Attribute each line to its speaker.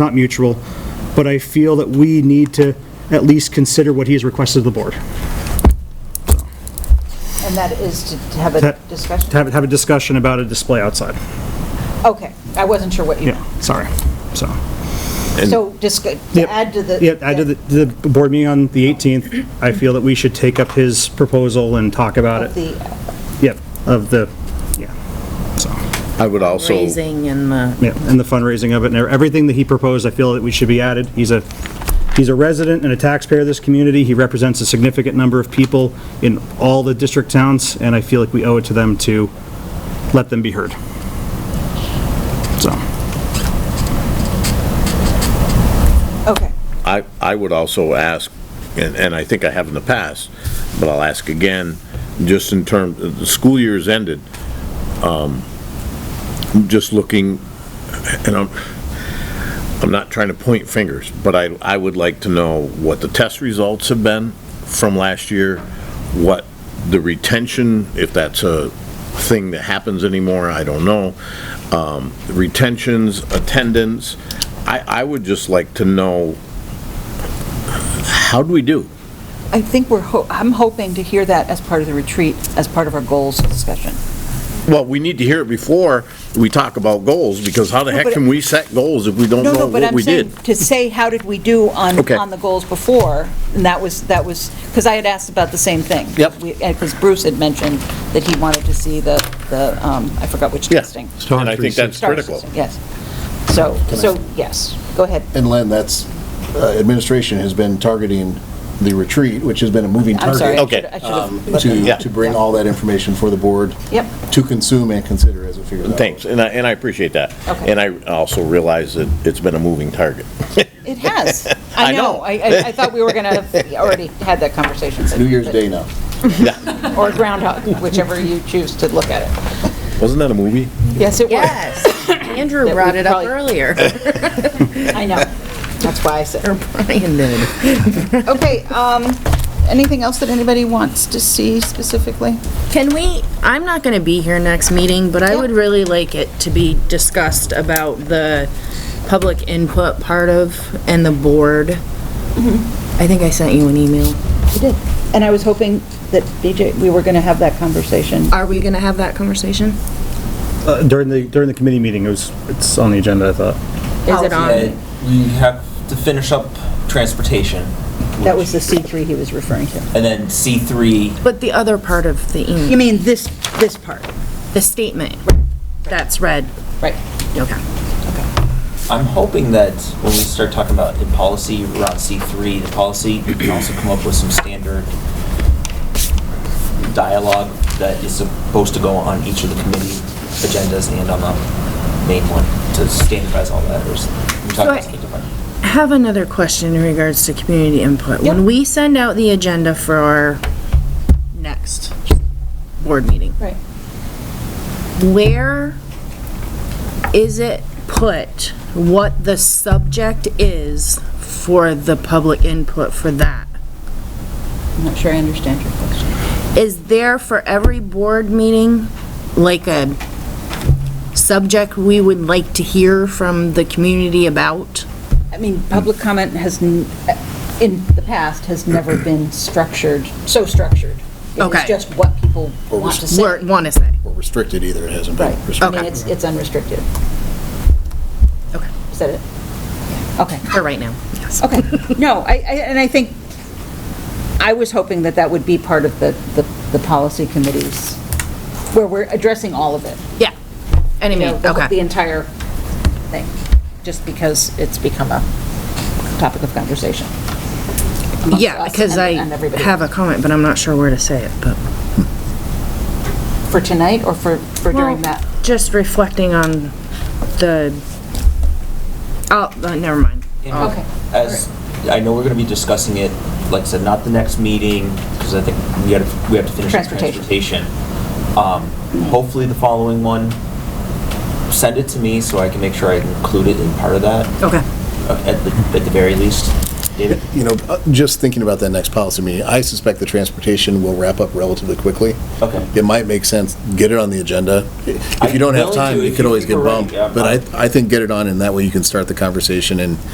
Speaker 1: not mutual, but I feel that we need to at least consider what he has requested of the board.
Speaker 2: And that is to to have a
Speaker 1: That-
Speaker 2: discussion?
Speaker 1: To have, have a discussion about a display outside.
Speaker 2: Okay, I wasn't sure what you meant.
Speaker 1: Yeah, sorry, so.
Speaker 2: So just go-
Speaker 1: Yep.
Speaker 2: to add to the...
Speaker 1: Yeah, I did the, the board meeting on the 18th. I feel that we should take up his proposal and talk about
Speaker 2: of
Speaker 1: it.
Speaker 2: the- uh,
Speaker 1: Yep, of the, yeah, so,
Speaker 3: I would also,
Speaker 4: raising and the,
Speaker 1: yeah, and the fundraising of it and everything that he proposed, I feel that we should be added. He's a, he's a resident and a taxpayer of this community. He represents a significant number of people in all the district towns, and I feel like we owe it to them to let them be heard. So,
Speaker 2: Okay,
Speaker 3: I, I would also ask, and, and I think I have in the past, but I'll ask again, just in terms, the school year's ended, um, just looking, and I'm, I'm not trying to point fingers, but I, I would like to know what the test results have been from last year, what the retention, if that's a thing that happens anymore, I don't know, um, retentions, attendance. I, I would just like to know, how do we do?
Speaker 2: I think we're, ho- I'm hoping to hear that as part of the retreat, as part of our goals discussion.
Speaker 3: Well, we need to hear it before we talk about goals, because how the heck
Speaker 2: but-
Speaker 3: can we set goals if we don't
Speaker 2: No,
Speaker 3: know
Speaker 2: no, but
Speaker 3: what
Speaker 2: I'm
Speaker 3: we did?
Speaker 2: saying, to say, how did we do on,
Speaker 3: Okay.
Speaker 2: on the goals before? And that was, that was, because I had asked about the same thing.
Speaker 3: Yep.
Speaker 2: Because Bruce had mentioned that he wanted to see the, the, um, I forgot which
Speaker 3: Yeah.
Speaker 2: testing.
Speaker 3: And I think that's
Speaker 2: Star
Speaker 3: critical.
Speaker 2: system, Yes. So, so, yes, go ahead.
Speaker 5: And Len, that's, uh, administration has been targeting the retreat, which has been a moving
Speaker 2: I'm sorry.
Speaker 5: target. um,
Speaker 2: I
Speaker 3: Okay. Um,
Speaker 2: should've- I
Speaker 6: Oh.
Speaker 2: should've-
Speaker 3: Yeah.
Speaker 5: To, to bring all that information for the board.
Speaker 2: Yep.
Speaker 5: To consume and consider as it figures out.
Speaker 3: Thanks, and I, and I appreciate that.
Speaker 2: Okay.
Speaker 3: And I also realize that it's been a moving target.
Speaker 2: It has.
Speaker 3: I
Speaker 2: I
Speaker 3: know.
Speaker 2: know. I, I I thought we were going to have already had that conversation.
Speaker 5: New Year's Day now.
Speaker 2: Or Groundhog, whichever you choose to look at it.
Speaker 3: Wasn't that a movie?
Speaker 2: Yes, it was.
Speaker 4: yes, Andrew
Speaker 2: That
Speaker 4: brought
Speaker 2: we
Speaker 4: it up
Speaker 2: probably-
Speaker 4: earlier,
Speaker 2: I know. That's why I said.
Speaker 4: or Brian did.
Speaker 2: Okay, um, anything else that anybody wants to see specifically?
Speaker 4: Can we, I'm not gonna be here next meeting, but I
Speaker 2: Yeah.
Speaker 4: would really like it to be discussed about the public input part of, and the board. I think I sent you an email.
Speaker 2: We did. And I was hoping that BJ, we were going to have that conversation.
Speaker 4: Are we gonna have that conversation?
Speaker 1: uh, during the, during the committee meeting, it was, it's on the agenda, I thought.
Speaker 4: Is it on?
Speaker 6: Uh, We have to finish up transportation,
Speaker 2: That was the C3 he was referring to.
Speaker 6: and then C3,
Speaker 4: But the other part of the
Speaker 2: You
Speaker 4: email,
Speaker 2: mean this, this part?
Speaker 4: the statement that's read,
Speaker 2: Right.
Speaker 4: okay.
Speaker 6: I'm hoping that when we start talking about the policy around C3, the policy, we can also come up with some standard dialogue that is supposed to go on each of the committee agendas and on the main one to standardize all that, or s- we talked about
Speaker 4: So I-
Speaker 6: something different.
Speaker 4: I have another question in regards to community input. When we send out the agenda for our next board meeting.
Speaker 2: Right.
Speaker 4: Where is it put, what the subject is for the public input for that?
Speaker 2: I'm not sure I understand your question.
Speaker 4: Is there for every board meeting, like a subject we would like to hear from the community about?
Speaker 2: I mean, public comment has, n- in the past, has never been structured, so structured.
Speaker 4: Okay.
Speaker 2: It's just what people
Speaker 5: Or
Speaker 2: want to
Speaker 5: rest-
Speaker 2: say.
Speaker 4: Or want to say?
Speaker 5: Or restricted either, it hasn't
Speaker 2: Right.
Speaker 5: been
Speaker 2: I
Speaker 5: restricted.
Speaker 2: mean, it's, it's unrestricted.
Speaker 4: Okay.
Speaker 2: Is that it? Okay.
Speaker 4: For right now, yes.
Speaker 2: Okay, no, I, I- and I think, I was hoping that that would be part of the, the, the policy committees, where we're addressing all of it.
Speaker 4: Yeah.
Speaker 2: you
Speaker 4: Anyway,
Speaker 2: know, the-
Speaker 4: okay.
Speaker 2: The entire thing, just because it's become a topic of conversation. amongst
Speaker 4: Yeah,
Speaker 2: us
Speaker 4: because
Speaker 2: and-
Speaker 4: I
Speaker 2: and everybody
Speaker 4: have a comment, but I'm not sure where to say it, but.
Speaker 2: For tonight, or for, for during that?
Speaker 4: Just reflecting on the, oh, uh, never mind.
Speaker 6: And
Speaker 2: Okay.
Speaker 6: As, I know we're gonna be discussing it, like I said, not the next meeting, because I think we gotta, we have to finish the
Speaker 2: Transportation.
Speaker 6: transportation. Um, hopefully the following one, send it to me so I can make sure I include it in part of that,
Speaker 4: Okay,
Speaker 6: uh, at the, at the very least. David?
Speaker 5: You know, uh, just thinking about that next policy meeting, I suspect the transportation will wrap up relatively quickly.
Speaker 6: Okay.
Speaker 5: It might make sense, get it on the agenda. If you
Speaker 6: I'm
Speaker 5: don't have
Speaker 6: willing
Speaker 5: time,
Speaker 6: to if
Speaker 5: it could
Speaker 6: you
Speaker 5: always
Speaker 6: think
Speaker 5: get
Speaker 6: we're ready,
Speaker 5: bumped.
Speaker 6: yeah.
Speaker 5: But I, I think get it on, and that way you can start the conversation and